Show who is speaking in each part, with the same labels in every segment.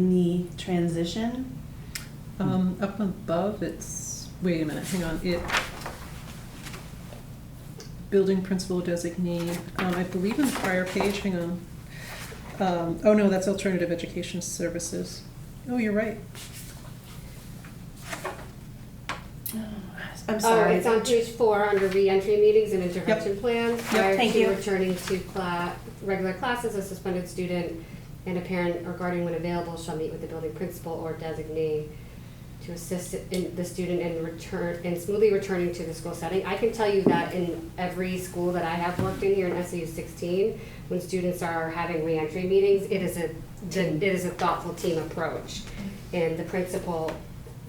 Speaker 1: in the transition?
Speaker 2: Um, up above, it's, wait a minute, hang on, it, building principal designee, um, I believe in the prior page, hang on. Um, oh no, that's alternative education services. Oh, you're right.
Speaker 1: I'm
Speaker 3: Oh,
Speaker 1: sorry.
Speaker 3: it's on page four under reentry meetings and intervention plans. Prior
Speaker 1: thank
Speaker 3: to
Speaker 1: you.
Speaker 3: returning to cla- regular classes, a suspended student and a parent or guardian when available shall meet with the building principal or designee to assist in the student in return, in smoothly returning to the school setting. I can tell you that in every school that I have worked in here in SU sixteen, when students are having reentry meetings, it is a, it is a thoughtful team approach. And the principal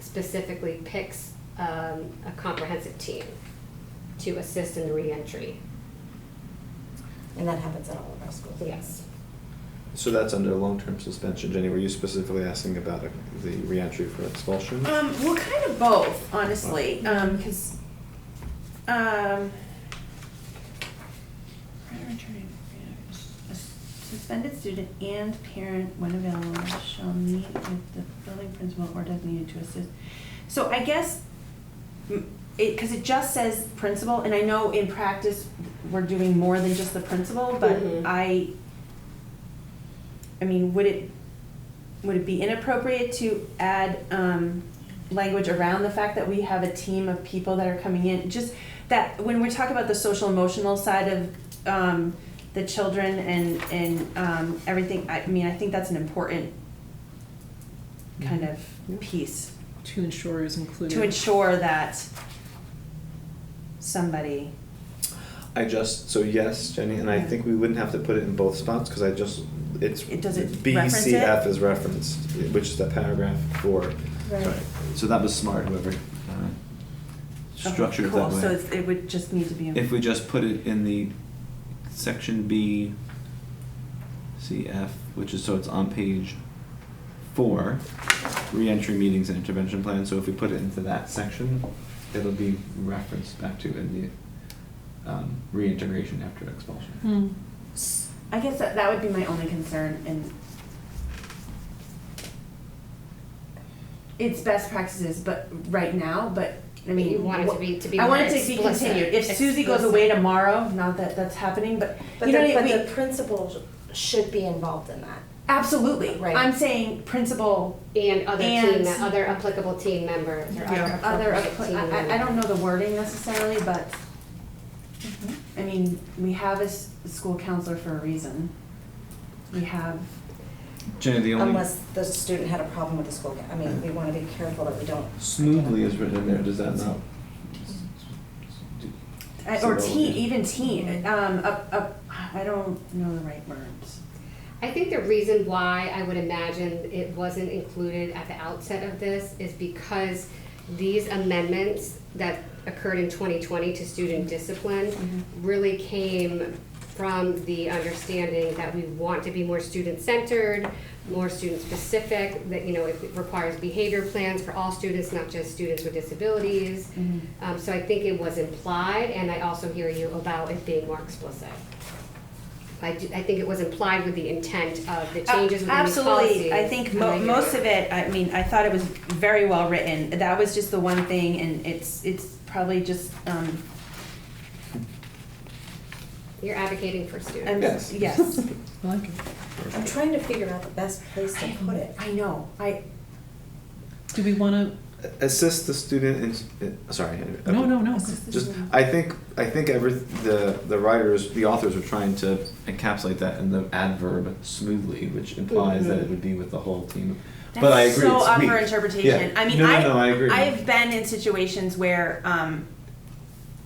Speaker 3: specifically picks um, a comprehensive team to assist in the reentry.
Speaker 4: And that happens at all of our schools.
Speaker 3: Yes.
Speaker 5: So that's under long-term suspension, Jenny, were you specifically asking about the reentry for expulsion?
Speaker 1: Um, well, kind of both, honestly, um, because, um, suspended student and parent, when available, shall meet with the building principal or designated to assist. So I guess, mm, it, because it just says principal, and I know in practice, we're doing more than just the principal, but
Speaker 3: Mhm.
Speaker 1: I, I mean, would it, would it be inappropriate to add um, language around the fact that we have a team of people that are coming in? Just that when we talk about the social emotional side of um, the children and and um, everything, I mean, I think that's an important kind of piece
Speaker 2: To ensure is included.
Speaker 1: to ensure that somebody.
Speaker 5: I just, so yes, Jenny, and I
Speaker 1: Yeah.
Speaker 5: think we wouldn't have to put it in both spots, because I just, it's.
Speaker 1: It doesn't reference it?
Speaker 5: BCF is referenced, which is the paragraph four.
Speaker 1: Right.
Speaker 5: So that was smart, whoever uh, structured it
Speaker 1: cool.
Speaker 5: that way.
Speaker 1: So it's, it would just need to be.
Speaker 5: If we just put it in the section B, CF, which is, so it's on page four, reentry meetings and intervention plan, so if we put it into that section, it'll be referenced back to in the, um, reintegration after expulsion.
Speaker 2: Hmm.
Speaker 1: I guess that, that would be my only concern and it's best practices, but right now, but I mean.
Speaker 3: You want it to be- to be
Speaker 1: I want
Speaker 3: more
Speaker 1: it to be
Speaker 3: explicit,
Speaker 1: continued. If Susie goes away
Speaker 3: explicit.
Speaker 1: tomorrow, not that that's happening, but
Speaker 4: But
Speaker 1: you
Speaker 4: the,
Speaker 1: know what I
Speaker 4: but
Speaker 1: mean?
Speaker 4: the principal should be involved in that.
Speaker 1: Absolutely.
Speaker 4: Right.
Speaker 1: I'm saying principal,
Speaker 3: And other
Speaker 1: And-
Speaker 3: team, other applicable team members or
Speaker 1: yeah,
Speaker 3: other
Speaker 1: other,
Speaker 3: appropriate team
Speaker 1: I, I- I
Speaker 3: members.
Speaker 1: don't know the wording necessarily, but I mean, we have a s- school counselor for a reason. We have,
Speaker 5: Jenny, the only
Speaker 4: Unless the student had a problem with the school, I mean, we want to be careful that we don't.
Speaker 5: smoothly is written in there, does that not?
Speaker 1: I- Uh, or
Speaker 5: So-
Speaker 1: teen, even teen, um, up, up, I don't know the right words.
Speaker 3: I think the reason why I would imagine it wasn't included at the outset of this is because these amendments that occurred in 2020 to student discipline really came from the understanding that we want to be more student-centered, more student-specific, that, you know, it requires behavior plans for all students, not just students with disabilities. Um, So I think it was implied, and I also hear you about it being more explicit. I, do- I think it was implied with the intent of the changes within the policy.
Speaker 1: Uh, Absolutely, I think mo-
Speaker 3: And I-
Speaker 1: most of it, I mean, I thought it was very well written, that was just the one thing, and it's, it's probably just, um,
Speaker 3: You're advocating for students.
Speaker 1: I'm-
Speaker 5: Yes.
Speaker 1: yes.
Speaker 2: I like it.
Speaker 4: I'm trying to figure out the best place to put it.
Speaker 1: I know, I,
Speaker 2: Do we wanna,
Speaker 5: Assist the student in, uh, sorry. I-
Speaker 2: no, no, no.
Speaker 5: just
Speaker 1: Mm-hmm.
Speaker 5: I think I think every the the writers the authors are trying to encapsulate that in the adverb smoothly, which implies that it would be with the whole team. but I
Speaker 1: Mm-hmm. That's
Speaker 5: agree,
Speaker 1: so
Speaker 5: it's
Speaker 1: up
Speaker 5: weak.
Speaker 1: for interpretation.
Speaker 5: Yeah.
Speaker 1: I mean,
Speaker 5: no, no,
Speaker 1: I,
Speaker 5: no, I agree.
Speaker 1: I've been in situations where, um,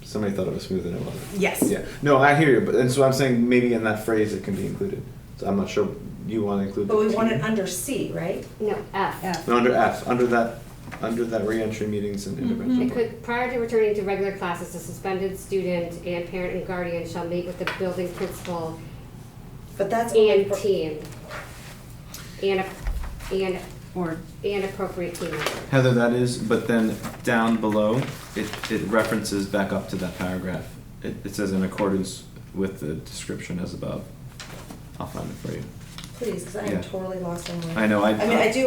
Speaker 5: Somebody thought it was smooth and it wasn't.
Speaker 1: Yes.
Speaker 5: Yeah. No, I hear you, but and so I'm saying maybe in that phrase it can be included. So I'm not sure you want to include.
Speaker 4: But
Speaker 5: the
Speaker 4: we
Speaker 5: team.
Speaker 4: want it under C, right?
Speaker 3: No, F.
Speaker 1: F.
Speaker 5: No, under F, under that, under that reentry meetings
Speaker 1: Mm-hmm.
Speaker 5: and intervention.
Speaker 3: It could, prior to returning to regular classes, a suspended student and parent and guardian shall meet with the building principal
Speaker 4: But that's only
Speaker 3: and
Speaker 4: for,
Speaker 3: team. And, a- and,
Speaker 1: or
Speaker 3: and appropriate team members.
Speaker 5: Heather, that is, but then down below, it, it references back up to that paragraph. It, it says in accordance with the description as above. I'll find it for you.
Speaker 4: please, because I
Speaker 5: Yeah.
Speaker 4: am totally lost in my.
Speaker 5: I know, I.
Speaker 4: I mean, I do